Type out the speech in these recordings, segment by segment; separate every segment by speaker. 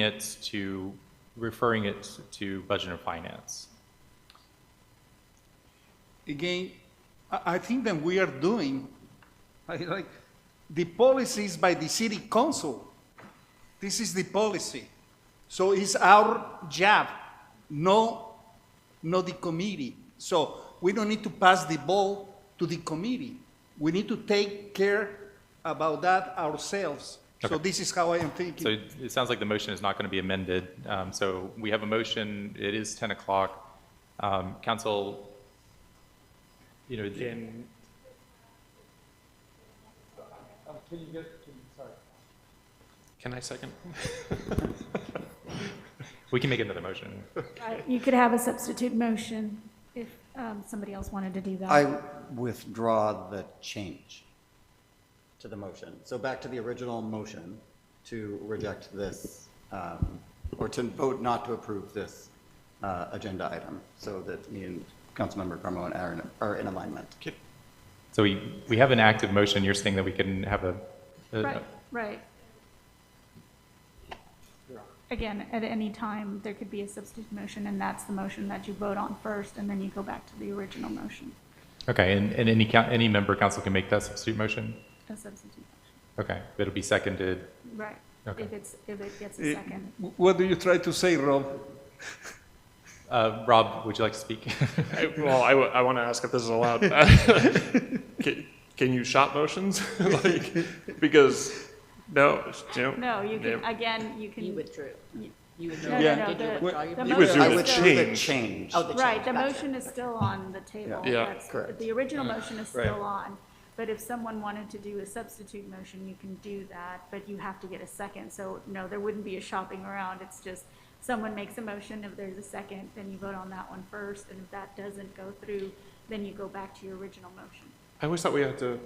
Speaker 1: it to, referring it to Budget and Finance.
Speaker 2: again, I, I think that we are doing, I like, the policy is by the city council. This is the policy. So it's our job, no, not the committee. So we don't need to pass the ball to the committee. We need to take care about that ourselves. So
Speaker 1: Okay.
Speaker 2: this is how I am
Speaker 1: So
Speaker 2: thinking.
Speaker 1: it it sounds like the motion is not going to be amended. Um, So we have a motion, it is 10 o'clock. Um, Council, you know,
Speaker 3: Then,
Speaker 4: uh, Can you get, can, sorry.
Speaker 3: can I second?
Speaker 1: we can make another motion.
Speaker 5: Right, Uh, You could have a substitute motion if um, somebody else wanted to do that.
Speaker 6: I withdraw the change to the motion. So back to the original motion to reject this, um, or to vote not to approve this uh, agenda item, so that me and Councilmember Carmo and Aaron are in alignment.
Speaker 1: So we, we have an active motion, you're saying that we can have a, a-
Speaker 5: Right, right. Again, at any time, there could be a substitute motion, and that's the motion that you vote on first, and then you go back to the original motion,
Speaker 1: okay, and, and any, coun- any member of council can make that substitute motion?
Speaker 5: a substitute motion.
Speaker 1: Okay, it'll be seconded.
Speaker 5: Right.
Speaker 1: Okay.
Speaker 5: If it's, if it gets a
Speaker 2: Eh,
Speaker 5: second.
Speaker 2: w- What do you try to say, Rob?
Speaker 1: Uh, Rob, would you like to speak?
Speaker 3: I- Well, I, want to ask if this is allowed. Can, can you shop motions? Like, because, no, you know.
Speaker 5: No, you can,
Speaker 3: yeah.
Speaker 5: again, you can.
Speaker 7: You withdrew.
Speaker 5: You-
Speaker 7: You withdrew.
Speaker 5: No,
Speaker 2: Yeah.
Speaker 5: no, no.
Speaker 7: Did you
Speaker 5: the-
Speaker 7: withdraw
Speaker 5: the
Speaker 7: your
Speaker 5: motion is
Speaker 3: withdrew the
Speaker 7: motion?
Speaker 6: I
Speaker 5: still-
Speaker 6: withdrew the
Speaker 3: change.
Speaker 6: change.
Speaker 7: Oh, the change.
Speaker 5: Right, the
Speaker 7: Gotcha.
Speaker 5: motion is still on the table.
Speaker 3: Yeah. Mm-hmm. Yeah,
Speaker 5: That's-
Speaker 6: correct.
Speaker 5: The original motion is still on, but if someone wanted to do a substitute motion, you can do that, but you have to get a second. So, no, there wouldn't be a shopping around, it's just, someone makes a motion, if there's a second, then you vote on that one first, and if that doesn't go through, then you go back to your original motion.
Speaker 3: I always thought we had to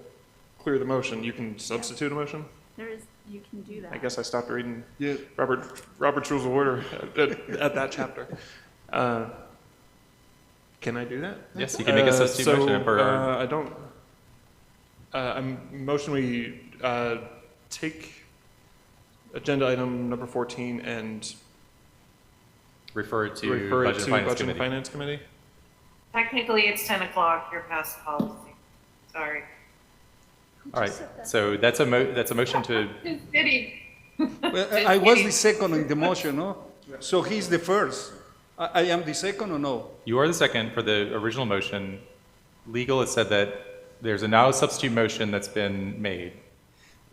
Speaker 3: clear the motion. You can substitute a motion?
Speaker 5: There is, you can do that.
Speaker 3: I guess I stopped reading
Speaker 2: Yeah.
Speaker 3: Robert, Robert's Rules of Order at, at- at that chapter. Uh, Can I do that?
Speaker 1: Yes, you can make a
Speaker 3: Uh,
Speaker 1: substitute
Speaker 3: so,
Speaker 1: motion for-
Speaker 3: uh, I don't, uh, I'm, motion we, uh, take agenda item number fourteen and
Speaker 1: Refer to
Speaker 3: refer
Speaker 1: Budget
Speaker 3: it
Speaker 1: and
Speaker 3: to
Speaker 1: Finance
Speaker 3: Budget and
Speaker 1: Committee.
Speaker 3: Finance Committee?
Speaker 8: Technically, it's 10 o'clock, you're past policy. Sorry.
Speaker 1: All right, so that's a mo, that's a motion to
Speaker 8: Just kidding.
Speaker 2: Well, I- I was the second in the motion, no? So he's the first. I, I am the second or no?
Speaker 1: You are the second for the original motion. Legal has said that there's a now substitute motion that's been made.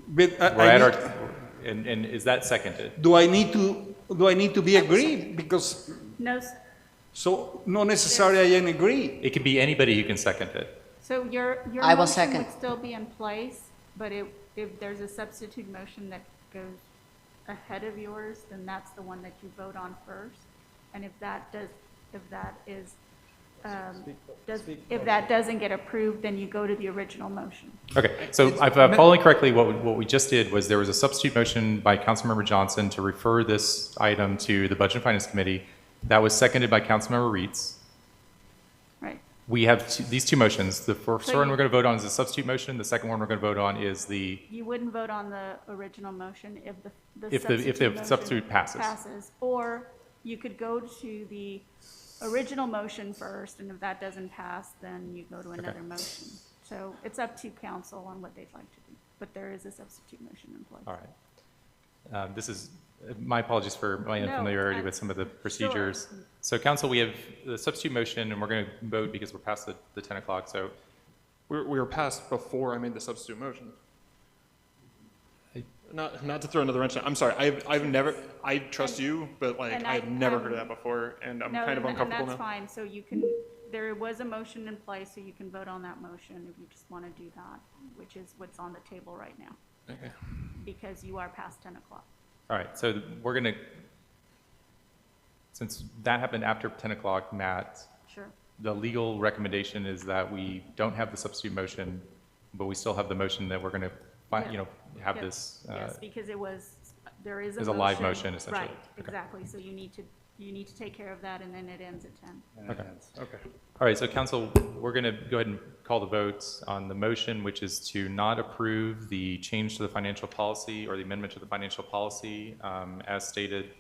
Speaker 2: But I,
Speaker 1: We're
Speaker 2: I
Speaker 1: at
Speaker 2: need-
Speaker 1: our, and, and is that seconded?
Speaker 2: do I need to, do I need to be agreed? Because,
Speaker 5: No, s-
Speaker 2: so, not necessarily I am agree.
Speaker 1: It could be anybody who can second it.
Speaker 5: so your, your
Speaker 7: I will
Speaker 5: motion
Speaker 7: second.
Speaker 5: would still be in place, but it, if there's a substitute motion that goes ahead of yours, then that's the one that you vote on first. And if that does, if that is, um, does, if that doesn't get approved, then you go to the original motion.
Speaker 1: Okay, so if I'm following correctly, what, we- what we just did was there was a substitute motion by Councilmember Johnson to refer this item to the Budget and Finance Committee. That was seconded by Councilmember Reitz.
Speaker 5: Right,
Speaker 1: We have two- these two motions. The first
Speaker 5: So
Speaker 1: one
Speaker 5: you-
Speaker 1: we're going to vote on is a substitute motion. The second one we're going to vote on is the
Speaker 5: you wouldn't vote on the original motion if the, the
Speaker 1: If the- if the
Speaker 5: substitute motion
Speaker 1: substitute passes.
Speaker 5: Passes, or you could go to the original motion first, and if that doesn't pass, then you go to another motion. So it's up to council on what they'd like to do, but there is a substitute motion in place.
Speaker 1: All right. Um, This is, my apologies for my
Speaker 5: No,
Speaker 1: unfamiliarity
Speaker 5: I-
Speaker 1: with some of the procedures. So council, we have the substitute motion, and we're going to vote because we're past the the 10 o'clock, so
Speaker 3: We were, we were passed before I made the substitute motion. Not, not to throw another wrench, in it, I'm sorry, I've, I've never, I trust you, but like,
Speaker 5: and
Speaker 3: I've
Speaker 5: I-
Speaker 3: never
Speaker 5: um,
Speaker 3: heard of that before, and I'm
Speaker 5: No,
Speaker 3: kind of
Speaker 5: and-
Speaker 3: uncomfortable
Speaker 5: And that's
Speaker 3: now.
Speaker 5: fine, so you can, there was a motion in place, so you can vote on that motion if you just want to do that, which is what's on the table right now,
Speaker 3: Okay.
Speaker 5: because you are past 10 o'clock.
Speaker 1: All right, so we're going to, since that happened after 10 o'clock, Matt,
Speaker 5: Sure.
Speaker 1: the legal recommendation is that we don't have the substitute motion, but we still have the motion that we're going to,
Speaker 5: Yeah.
Speaker 1: you know, have
Speaker 5: Yep.
Speaker 1: this. uh,
Speaker 5: Yes, because it was, there is a
Speaker 1: there's a live motion, essentially.
Speaker 5: Right,
Speaker 1: Okay.
Speaker 5: exactly, so you need to, you need to take care of that, and then it ends at ten.
Speaker 1: Okay.
Speaker 3: Okay.
Speaker 1: All right, so council, we're going to go ahead and call the vote on the motion, which is to not approve the change to the financial policy or the amendment to the financial policy um, as stated